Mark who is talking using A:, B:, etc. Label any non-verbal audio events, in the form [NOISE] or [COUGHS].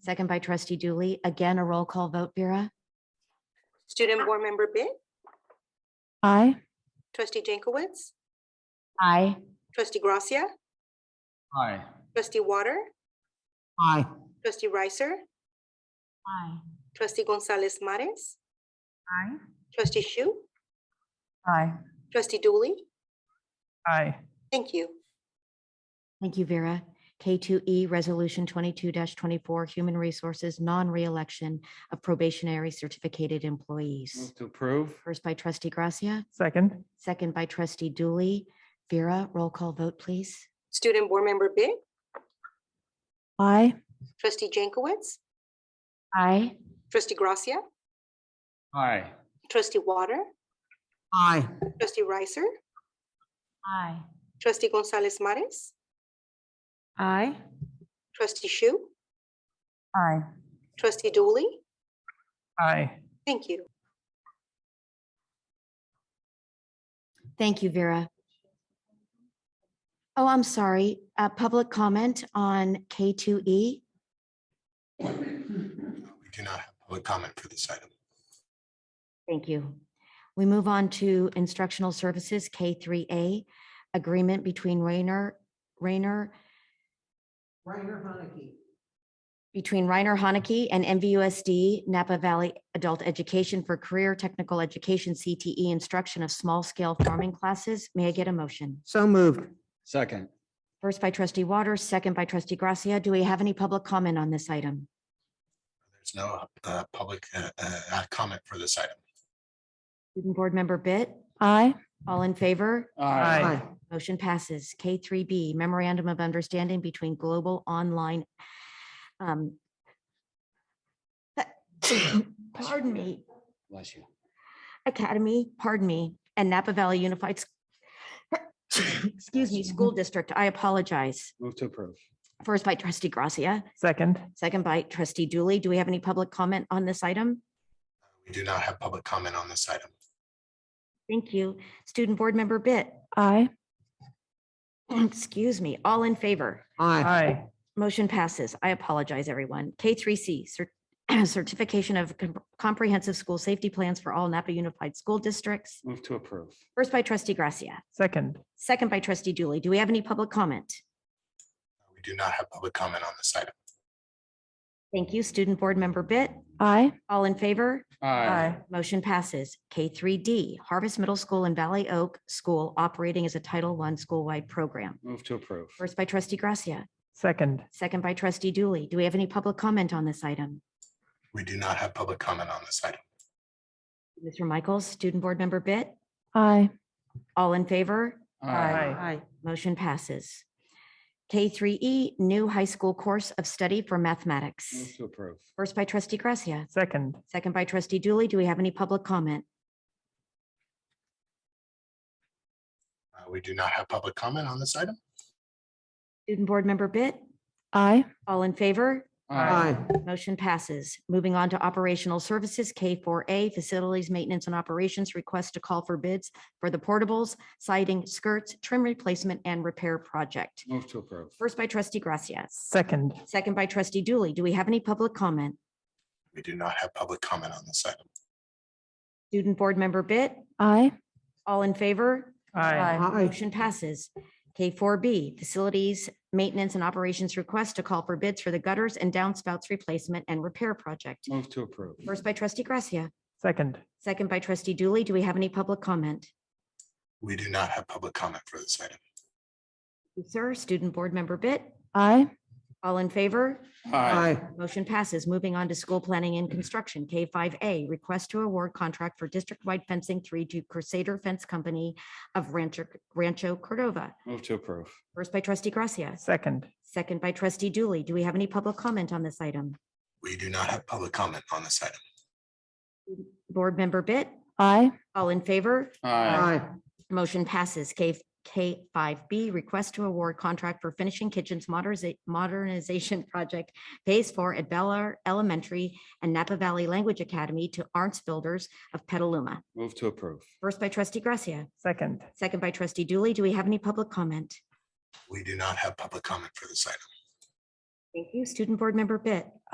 A: second by trustee Dooley. Again, a roll call vote, Vera?
B: Student Board Member Bit,
C: Aye.
B: Trustee Jankowicz,
A: Aye.
B: Trustee Gracia,
D: Aye.
B: Trustee Water,
D: Aye.
B: Trustee Ricer,
A: Aye.
B: Trustee Gonzalez Mares,
C: Aye.
B: Trustee Shu,
C: Aye.
B: Trustee Dooley.
C: Aye.
B: Thank you.
A: Thank you, Vera. K2E, Resolution 22-24, Human Resources Non-Reelection of Probationary Certificated Employees.
D: Move to approve.
A: First by trustee Gracia,
C: Second.
A: second by trustee Dooley. Vera, roll call vote, please.
B: Student Board Member Bit,
C: Aye.
B: Trustee Jankowicz,
A: Aye.
B: Trustee Gracia,
D: Aye.
B: Trustee Water,
D: Aye.
B: Trustee Ricer,
A: Aye.
B: Trustee Gonzalez Mares,
C: Aye.
B: Trustee Shu,
C: Aye.
B: Trustee Dooley.
C: Aye.
B: Thank you.
A: Thank you, Vera. Oh, I'm sorry. Uh, Public comment on E? K2E?
E: We do not have public comment for this item.
A: Thank you. We move on to instructional services, K3A, agreement between Rayner, Rayner,
F: Reiner Heineke.
A: between Reiner Haneke and MVUSD Napa Valley Adult Education for Career Technical Education, CTE, instruction of small-scale farming classes. May I get a motion?
F: So moved.
D: Second.
A: First by trustee Waters, second by trustee Gracia. Do we have any public comment on this item?
E: There's no uh, public uh, uh, uh, comment for this item.
A: Student Board Member Bit,
C: Aye.
A: all in favor?
C: Aye.
A: Motion passes. K3B, Memorandum of Understanding between Global Online. um, [COUGHS] Pardon me,
D: Bless you.
A: Academy, pardon me, and Napa Valley Unified. S- [COUGHS] Excuse me, School District. I apologize.
D: Move to approve.
A: First by trustee Gracia,
C: Second.
A: second by trustee Dooley. Do we have any public comment on this item?
E: We do not have public comment on this item.
A: Thank you. Student Board Member Bit,
C: Aye.
A: [COUGHS] excuse me, all in favor?
C: Aye.
A: Motion passes. I apologize, everyone. K3C, cer- [CLEARS THROAT] certification of com- comprehensive school safety plans for all Napa Unified School Districts.
D: Move to approve.
A: First by trustee Gracia,
C: Second.
A: second by trustee Dooley. Do we have any public comment?
E: We do not have public comment on this item.
A: Thank you. Student Board Member Bit,
C: Aye.
A: all in favor?
C: Aye.
A: Motion passes. K3D, Harvest Middle School and Valley Oak School operating as a Title I school-wide program.
D: Move to approve.
A: First by trustee Gracia,
C: Second.
A: second by trustee Dooley. Do we have any public comment on this item?
E: We do not have public comment on this item.
A: Mr. Michaels, Student Board Member Bit,
C: Aye.
A: all in favor?
C: Aye.
A: Motion passes. K3E, new high school course of study for
D: Move
A: mathematics.
D: to approve.
A: First by trustee Gracia,
C: Second.
A: second by trustee Dooley. Do we have any public comment?
E: Uh, We do not have public comment on this item.
A: Student board member Bit,
C: Aye.
A: all in favor?
D: Aye.
A: Motion passes. Moving on to operational services, K4A, facilities, maintenance and operations request to call for bids for the portables, siding, skirts, trim replacement and repair project.
D: Move to approve.
A: First by trustee Gracia,
C: Second.
A: second by trustee Dooley. Do we have any public comment?
E: We do not have public comment on this item.
A: Student board member Bit,
C: Aye.
A: all in favor?
C: Aye.
A: Motion passes. K4B, Facilities, Maintenance and Operations Request to call for bids for the gutters and downspouts replacement and repair project.
D: Move to approve.
A: First by trustee Gracia,
C: Second.
A: second by trustee Dooley. Do we have any public comment?
E: We do not have public comment for this item.
A: Sir, student board member Bit,
C: Aye.
A: all in favor?
D: Aye.
A: Motion passes. Moving on to school planning and construction, K5A, request to award contract for district-wide fencing three to Crusader Fence Company of Rancho Rancho Cordova.
D: Move to approve.
A: First by trustee Gracia,
C: Second.
A: second by trustee Dooley. Do we have any public comment on this item?
E: We do not have public comment on this item.
A: Board Member Bit,
C: Aye.
A: all in favor?
D: Aye.
A: Motion passes. K, K5B, request to award contract for finishing kitchens moderniza- modernization [LAUGHS] project phase four at Bellar Elementary and Napa Valley Language Academy to Arts Builders of Petaluma.
D: Move to approve.
A: First by trustee Gracia,
C: Second.
A: second by trustee Dooley. Do we have any public comment?
E: We do not have public comment for this item.
A: Thank you. Student Board Member Bit,